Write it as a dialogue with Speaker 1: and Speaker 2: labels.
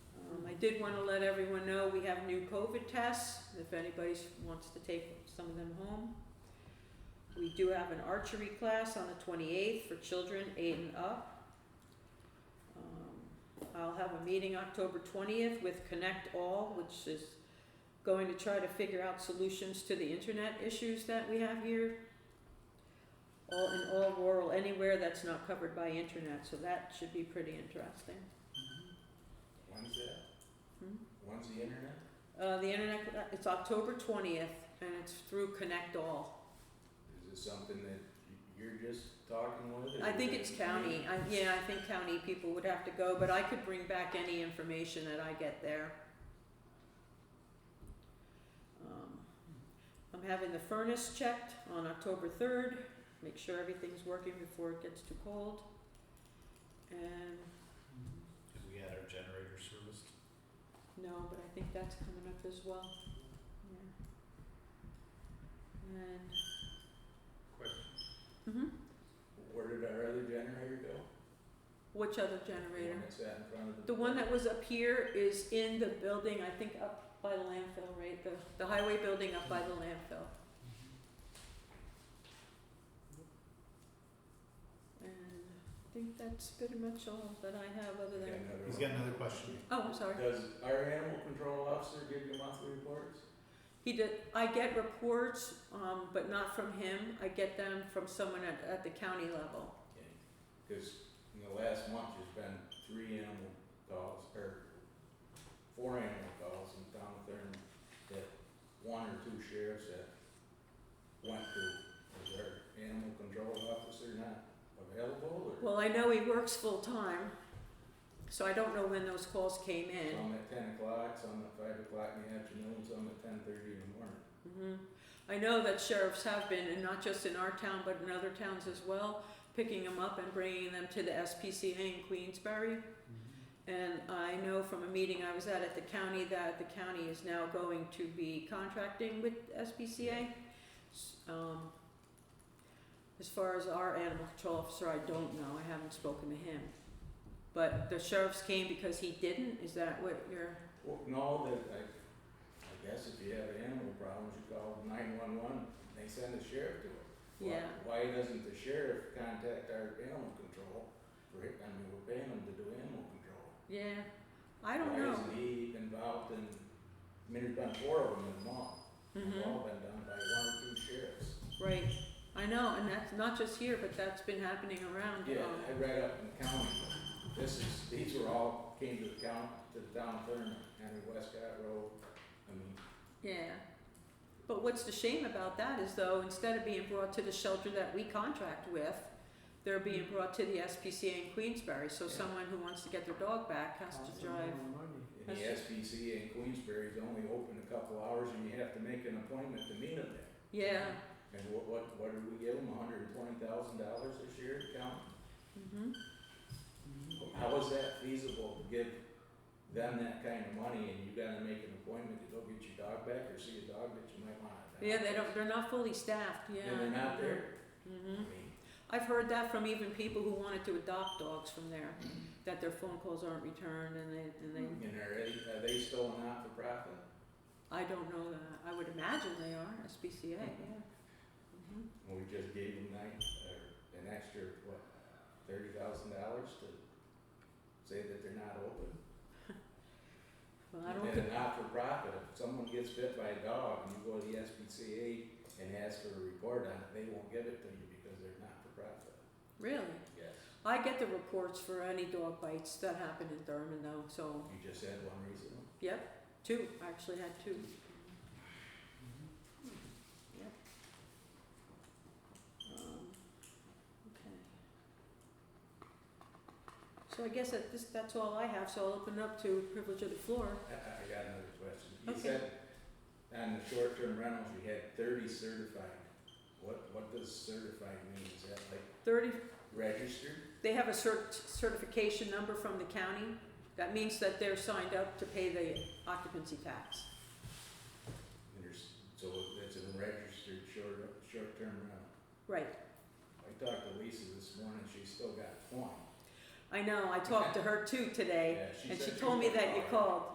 Speaker 1: Um, did wanna let everyone know, we have new COVID tests, if anybody s- wants to take some of them home. We do have an archery class on the twenty-eighth for children eight and up. Um, I'll have a meeting October twentieth with Connect All, which is going to try to figure out solutions to the internet issues that we have here. All in all rural, anywhere that's not covered by internet, so that should be pretty interesting.
Speaker 2: When's that?
Speaker 1: Hmm?
Speaker 2: When's the internet?
Speaker 1: Uh, the internet, it's October twentieth, and it's through Connect All.
Speaker 2: Is it something that y- you're just talking with? or
Speaker 1: I think
Speaker 2: is
Speaker 1: it's
Speaker 2: it-
Speaker 1: county, I, yeah, I think county people would have to go, but I could bring back any information that I get there. Um, I'm having the furnace checked on October third, make sure everything's working before it gets too cold. And,
Speaker 3: Cause we had our generator serviced.
Speaker 1: no, but I think that's coming up as well, yeah. And,
Speaker 3: Question.
Speaker 1: mhm.
Speaker 2: Where did our other generator go?
Speaker 1: Which other
Speaker 2: The
Speaker 1: generator?
Speaker 2: one that's out in front of the.
Speaker 1: The one that was up here is in the building, I think up by the landfill, right? The, the highway building up by the landfill. And I think that's pretty much all that I have other than,
Speaker 2: Got another
Speaker 3: He's
Speaker 2: one.
Speaker 3: got another question.
Speaker 1: oh, I'm sorry.
Speaker 2: Does our animal control officer give you monthly reports?
Speaker 1: He did, I get reports, um, but not from him. I get them from someone at, at the county level.
Speaker 2: Because in the last month, there's been three animal calls, or four animal calls in town with their, that one or two sheriffs that went to, is their animal control officer not available or?
Speaker 1: Well, I know he works full-time, so I don't know when those calls came in.
Speaker 2: Some at ten o'clock, some at five o'clock in the afternoon, some at ten thirty in the morning.
Speaker 1: Mhm. I know that sheriffs have been, and not just in our town, but in other towns as well, picking them up and bringing them to the SPCA in Queensbury. And I know from a meeting I was at at the county that the county is now going to be contracting with SPCA. S- Um, as far as our animal control officer, I don't know, I haven't spoken to him. But the sheriffs came because he didn't, is that what you're,
Speaker 2: Well, no, that, I, I guess if you have animal problems, you call nine one one, they send the sheriff to it. Why-
Speaker 1: yeah,
Speaker 2: Why doesn't the sheriff contact our animal control for, it? I mean, we're paying them to do animal control.
Speaker 1: yeah, I don't know.
Speaker 2: Why isn't he involved in, I mean, there's been four of them in the month,
Speaker 1: Mhm.
Speaker 2: they've all been done by one or two sheriffs.
Speaker 1: Right, I know, and that's not just here, but that's been happening around,
Speaker 2: Yeah,
Speaker 1: um,
Speaker 2: I read up in the county, this is, these were all, came to the county, to the town of Thurman, Henry Westcott Road, I mean,
Speaker 1: yeah. But what's the shame about that is though, instead of being brought to the shelter that we contract with, they're being brought to the SPCA in Queensbury, so
Speaker 2: Yeah.
Speaker 1: someone who wants to get their dog back has to drive.
Speaker 2: and the SPCA in Queensbury is only open a couple hours and you have to make an appointment to meet them there.
Speaker 1: Yeah,
Speaker 2: And what, what, what did we give them, hundred and twenty thousand dollars this year to county?
Speaker 1: mhm,
Speaker 2: How is that feasible to give them that kind of money and you gotta make an appointment to go get your dog back or see a dog that you might want?
Speaker 1: yeah, they don't, they're not fully staffed, yeah.
Speaker 2: And they're not there, I
Speaker 1: Mhm,
Speaker 2: mean,
Speaker 1: I've heard that from even people who wanted to adopt dogs from there, that their phone calls aren't returned and they, and they
Speaker 2: and are they, are they still a not-for-profit?
Speaker 1: I don't know that. I would imagine they are, SPCA, yeah. Mhm.
Speaker 2: We just gave them nine, uh, an extra, what, thirty thousand dollars to say that they're not open.
Speaker 1: Well, I don't
Speaker 2: And
Speaker 1: think,
Speaker 2: a not-for-profit, if someone gets bit by a dog and you go to the SPCA and ask for a report on it, they won't give it to you because they're not-for-profit.
Speaker 1: really.
Speaker 2: Yes.
Speaker 1: I get the reports for any dog bites that happen in Thurman though, so,
Speaker 2: You just had one recently.
Speaker 1: yep, two, I actually had two. Yep. Um, okay. So I guess that this, that's all I have, so I'll open it up to privilege of the floor.
Speaker 2: I, I got another question. You
Speaker 1: Okay.
Speaker 2: said on the short-term rentals, you had thirty certified. What, what does certified mean? Is that like
Speaker 1: Thirty
Speaker 2: registered?
Speaker 1: They have a cert- certification number from the county. That means that they're signed up to pay the occupancy tax.
Speaker 2: And There's, so it's a registered short, short-term rental.
Speaker 1: Right.
Speaker 2: I talked to Lisa this morning, she's still got one.
Speaker 1: I know, I talked to her too today,
Speaker 2: Yeah, she
Speaker 1: and
Speaker 2: said
Speaker 1: she
Speaker 2: she
Speaker 1: told me
Speaker 2: was
Speaker 1: that you
Speaker 2: calling.
Speaker 1: called.